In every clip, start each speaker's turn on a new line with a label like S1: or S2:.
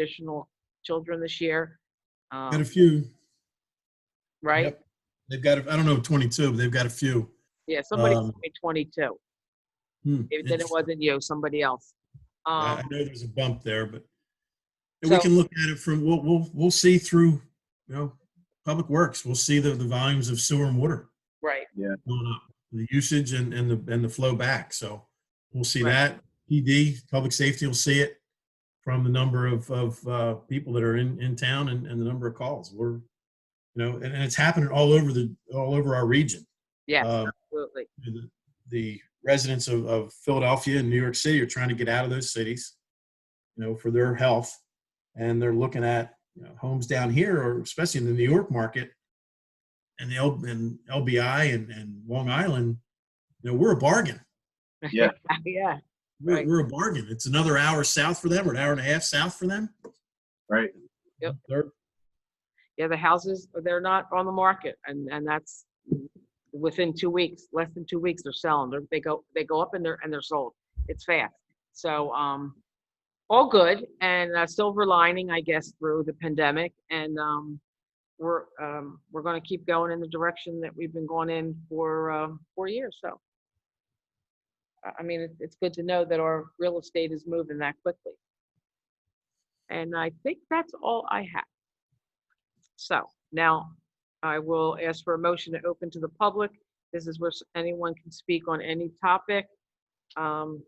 S1: additional children this year. um,
S2: Got a few.
S1: Right?
S2: Yep. They've got, I don't know, 22, but they've got a few.
S1: Yeah, somebody
S2: Um,
S1: told me 22.
S2: Hmm,
S1: If then it
S2: interesting.
S1: wasn't you, somebody else.
S2: I I
S1: Um,
S2: know there's a bump there, but and we
S1: So-
S2: can look at it from, we'll, we'll, we'll see through, you know, Public Works. We'll see the, the volumes of sewer and water
S1: right.
S2: going up, the usage and, and the, and the flow back. So we'll see
S1: Right.
S2: that. PD, Public Safety will see it from the number of, of uh, people that are in, in town and, and the number of calls. We're, you know, and, and it's happening all over the, all over our region.
S1: Yes,
S2: Um,
S1: absolutely.
S2: the- the residents of, of Philadelphia and New York City are trying to get out of those cities, you know, for their health. And they're looking at you know, homes down here, or especially in the New York market and the L, and LBI and, and Long Island. You know, we're a bargain.
S3: Yeah.
S1: Yeah,
S2: We're,
S1: Right.
S2: we're a bargain. It's another hour south for them or an hour and a half south for them.
S3: Right.
S1: Yep.
S2: They're-
S1: yeah, the houses, they're not on the market and, and that's within two weeks, less than two weeks, they're selling. They're- They go, they go up and they're, and they're sold. It's fast. So, um, all good and a silver lining, I guess, through the pandemic and, um, we're, um, we're gonna keep going in the direction that we've been going in for, uh, four years, so. I, I mean, it's, it's good to know that our real estate is moving that quickly. And I think that's all I have. So now I will ask for a motion to open to the public. This is where s- anyone can speak on any topic. Um,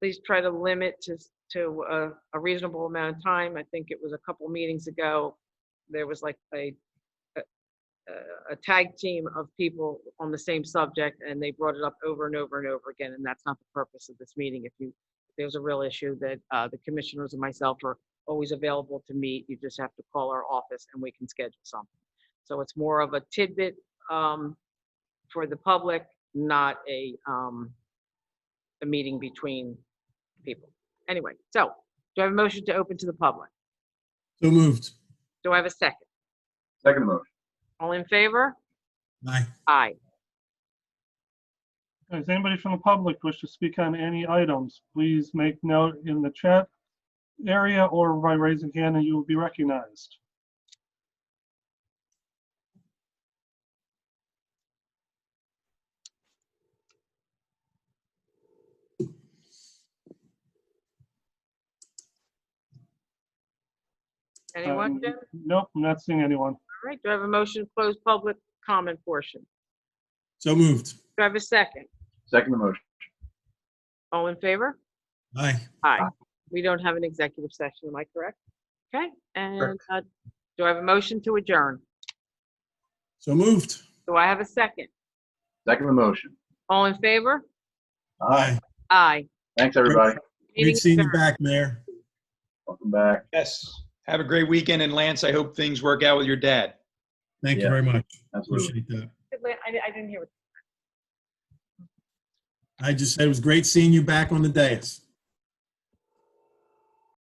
S1: Please try to limit to, s- to a- a reasonable amount of time. I think it was a couple meetings ago, there was like a, a- a- a tag team of people on the same subject, and they brought it up over and over and over again, and that's not the purpose of this meeting. If you, if there's a real issue that uh, the commissioners and myself are always available to meet. You just have to call our office and we can schedule something. So it's more of a tidbit um, for the public, not a, um, a meeting between people. Anyway, so do I have a motion to open to the public?
S2: So moved.
S1: Do I have a second?
S3: Second motion.
S1: All in favor?
S2: Aye.
S1: Aye.
S4: Does anybody from the public wish to speak on any items? Please make note in the chat area or by raising hand and you will be recognized.
S1: Anyone?
S4: Um,
S1: Jim?
S4: Nope, I'm not seeing anyone.
S1: All right, do I have a motion to close public comment portion?
S2: So moved.
S1: Do I have a second?
S3: Second motion.
S1: All in favor?
S2: Aye.
S1: Aye. We don't have an executive session, am I correct? Okay, and uh, do I have a motion to adjourn?
S2: So moved.
S1: Do I have a second?
S3: Second motion.
S1: All in favor?
S2: Aye.
S1: Aye.
S3: Thanks, everybody.
S1: Meeting
S2: Great seeing you
S1: adjourned.
S2: back, Mayor.
S3: Welcome back.
S5: Yes. Have a great weekend. And Lance, I hope things work out with your dad.
S2: Thank you
S3: Yeah.
S2: very much.
S3: Absolutely.
S2: Appreciate that.
S1: I I didn't hear what
S2: I just said it was great seeing you back on the dais.